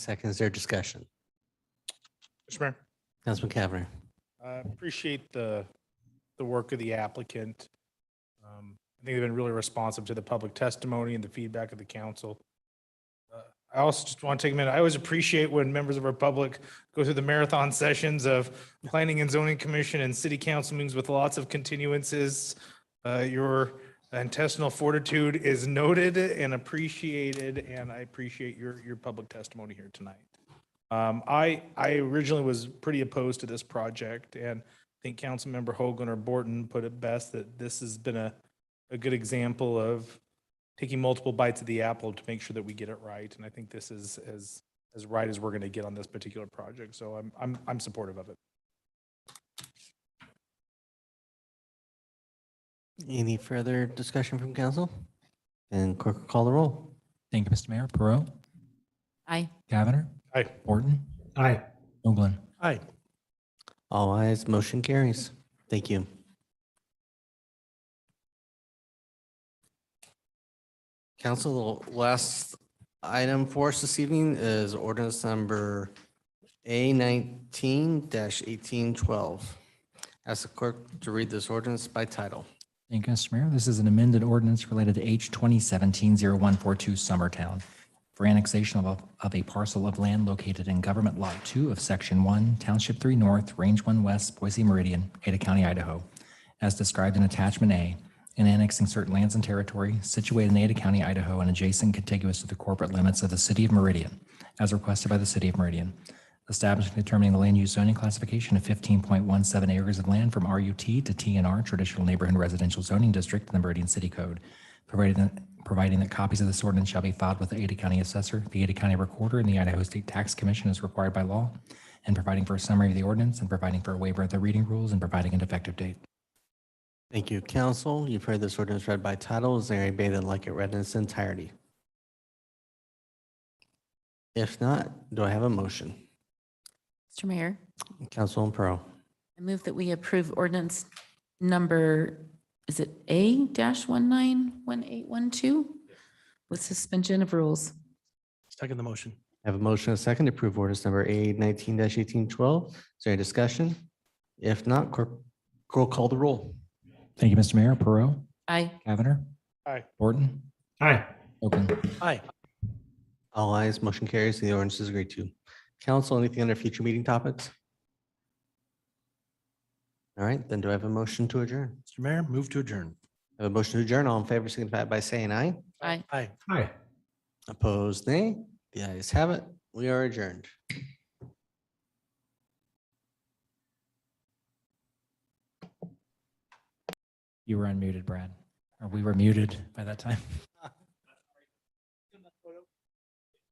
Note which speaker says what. Speaker 1: Seconds their discussion.
Speaker 2: Mr. Mayor,
Speaker 1: Councilman Cavanagh.
Speaker 2: I appreciate the, the work of the applicant. Um, I think they've been really responsive to the public testimony and the feedback of the council. Uh, I also just want to take a minute, I always appreciate when members of our public go through the marathon sessions of Planning and Zoning Commission and City Council meetings with lots of continuances. Uh, Your intestinal fortitude is noted and appreciated, and I appreciate your, your public testimony here tonight. Um, I, I originally was pretty opposed to this project and I think Councilmember Hogan or Borton put it best that this has been a, a good example of taking multiple bites of the apple to make sure that we get it right. And I think this is as, as right as we're going to get on this particular project. So I'm, I'm, I'm supportive of it.
Speaker 1: Any further discussion from council? And clerk will call the roll.
Speaker 3: Thank you, Mr. Mayor. Perot,
Speaker 4: Aye.
Speaker 3: Cavanagh,
Speaker 2: Aye.
Speaker 3: Borton. Aye. Hoagland.
Speaker 2: Aye.
Speaker 1: All eyes, motion carries. Thank you. Council, the last item for us this evening is ordinance number A nineteen eighteen twelve. Ask the clerk to read this ordinance by title.
Speaker 3: Thank you, Mr. Mayor. This is an amended ordinance related to H 2017-0142 Summertown for annexation of, of a parcel of land located in Government Lot 2 of Section 1, Township 3 North, Range 1 West, Boise Meridian, Ada County, Idaho, as described in Attachment A, and annexing certain lands and territory situated in Ada County, Idaho, and adjacent contiguous to the corporate limits of the City of Meridian, as requested by the City of Meridian, establishing and determining the land use zoning classification of fifteen point one seven acres of land from RUT to TNR Traditional Neighborhood Residential Zoning District in the Meridian City Code, provided that, providing that copies of this ordinance shall be filed with the Ada County Assessor, the Ada County Recorder, and the Idaho State Tax Commission as required by law, and providing for a summary of the ordinance, and providing for a waiver of the reading rules, and providing an effective date.
Speaker 1: Thank you, council. You've heard this ordinance read by title. Is there anybody that'd like it read in its entirety? If not, do I have a motion?
Speaker 4: Mr. Mayor,
Speaker 1: Councilman Pearl.
Speaker 4: I move that we approve ordinance number, is it A dash one nine one eight one two? With suspension of rules.
Speaker 5: Second the motion.
Speaker 1: I have a motion and a second to approve ordinance number A nineteen eighteen twelve. Is there any discussion? If not, clerk will call the roll.
Speaker 3: Thank you, Mr. Mayor. Perot,
Speaker 4: Aye.
Speaker 3: Cavanagh.
Speaker 2: Aye.
Speaker 3: Borton. Aye. Hoagland.
Speaker 5: Aye.
Speaker 1: All eyes, motion carries. The ordinance is agreed to. Council, anything under future meeting topics? All right, then do I have a motion to adjourn?
Speaker 5: Mr. Mayor, move to adjourn.
Speaker 1: I have a motion to adjourn. All in favor, signify by saying aye.
Speaker 4: Aye.
Speaker 5: Aye.
Speaker 1: Opposed, nay. The ayes have it. We are adjourned.
Speaker 3: You were unmuted, Brad. Or we were muted by that time.